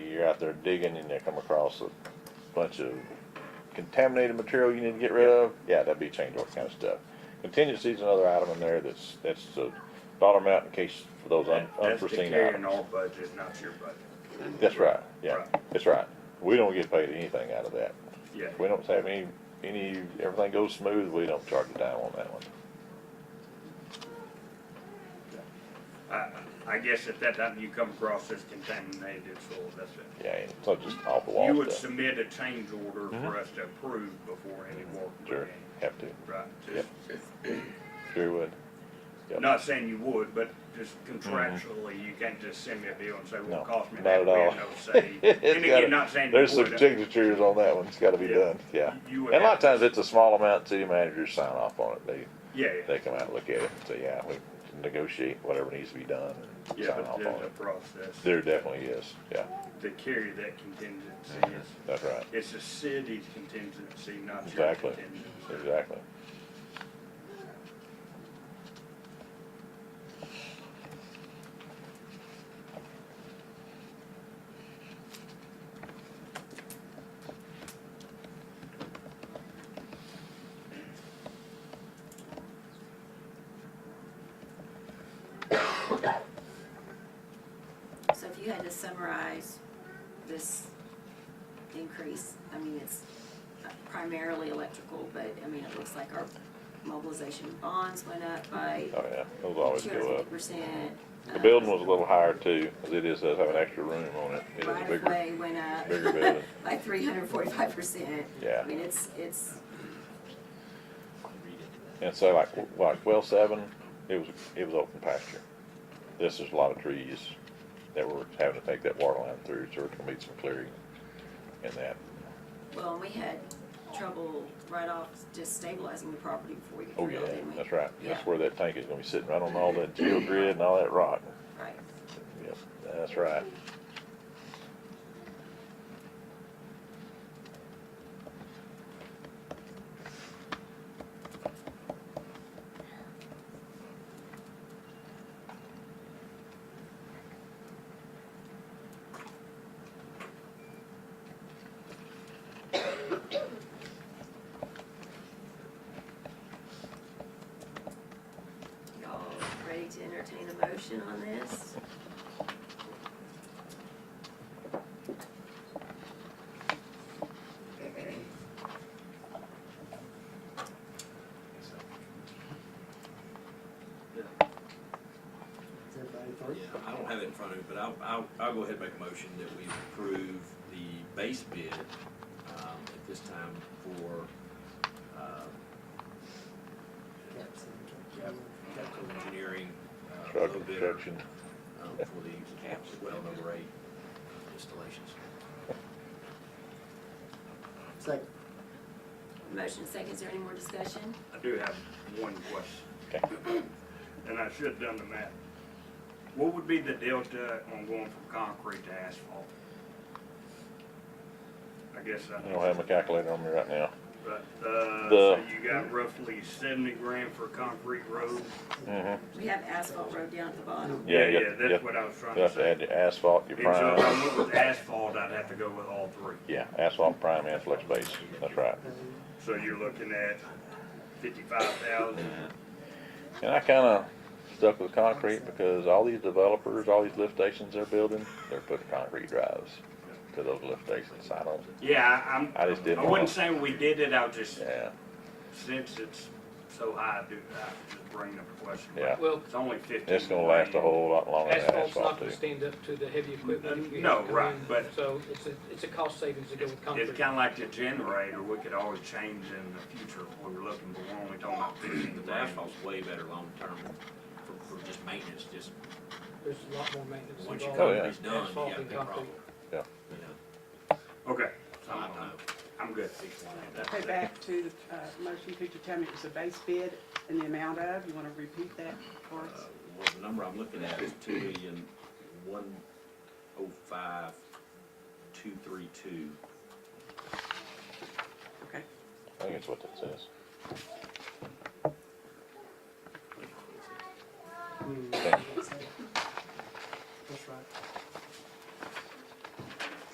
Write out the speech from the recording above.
you're out there digging and you come across a bunch of contaminated material you need to get rid of, yeah, that'd be change order kind of stuff. Contingency's another item in there that's, that's the dollar amount in case for those un- That- unforeseen That's to carry items. our budget, not your budget. That's right, yeah, Right. that's right. We don't get paid anything out of that. Yeah. We don't have any, any, everything goes smooth, we don't charge a dime on that one. I, I guess at that time you come across this contaminated soil, that's it. Yeah, and it's not just off the You wall would stuff. submit a change order for us to approve before any work Mm-hmm. Sure, began. have to, Right, Yep. just, sure would. Yep. Mm-hmm. not saying you would, but just contractually, you can't just send me a bill and say, well, No, it cost me not that, at we all. have no say. It's And gotta- again, not saying you would. There's some signatures on that one, it's gotta be Yeah. done, yeah. You And would a lot have of to- times it's a small amount, city managers sign off on it, they, Yeah, yeah, they come out, and look at it, and say, yeah, we can negotiate whatever needs to be done, and yeah, sign but off there's on a it. process There definitely is, yeah, to carry that contingency. Mm-hmm. It's- that's right, It's the city's contingency, not your Exactly. contingency. exactly. So if you had to summarize this increase, I mean, it's primarily electrical, but I mean, it looks like our mobilization bonds went up by Oh, yeah, those two always hundred go fifty up. percent. The building was a little higher too, as it is, does have an extra room on it, it is a uh, Right of bigger, way went up bigger building. by three hundred forty-five percent. Yeah. I mean, it's, it's, And so like, w- like well seven, it was, it was open pasture. This is a lot of trees that were having to take that water line through, so it's gonna be some clearing in that. well, and we had trouble right off just stabilizing the property before we Oh, could drill, yeah, didn't we? that's right. Yeah. That's where that tank is gonna be sitting, right on all that geogrid and all that rock. Right. Yep, that's right. Y'all ready to entertain a motion on this? Everybody through? Yeah, I don't have it in front of me, but I'll, I'll, I'll go ahead and make a motion that we approve the base bid, um, at this time for, uh, capital engineering, uh, Truck low bidder, construction. um, for the caps, well, number eight installations. Second. Motion second, is there any more discussion? I do have one question. And I should have done the math. What would be the delta on going from concrete to asphalt? I guess I, I don't have my calculator on me right now. but, uh, so The- you got roughly seventy grand for concrete roads? Mm-hmm. We have asphalt road down at the bottom. Yeah, you Yeah, have to- you that's have- what I was trying you to have to say. add your asphalt, your And so if I prime. went with asphalt, I'd have to go with all three. Yeah, asphalt, prime, and flex base. That's right. So you're looking at fifty-five thousand, And I kinda stuck with concrete because all these developers, all these lift stations they're building, they're putting concrete drives to those lift stations. I don't, yeah, I- I'm, I just didn't I wanna- wouldn't say we did it, I was just, yeah, since it's so high, I do, I was just bringing up the question. yeah. Well, It's only fifteen. It's gonna last a grand. whole lot longer than asphalt's asphalt not gonna too. stand up to the heavy equipment. that we No, have come right, in, but- So it's a, it's a cost savings to go with concrete. It's kinda like the generator, we could always change in the future if we were looking, but we're only talking about fifteen The grand. asphalt's way better long-term for, for just maintenance, just, There's a lot more maintenance once your involved. Oh, yeah. concrete's done, you Asphalt got a and big concrete. problem. Yeah. You know, Okay, so so I don't I'm, know. I'm good. Okay, back to the uh, motion, could you tell me it was a base bid and the amount of, you want to repeat that for Uh, us? Well, the number I'm looking at is two million, one oh five, two three two. Okay, I think that's what that says. hmm, That's right.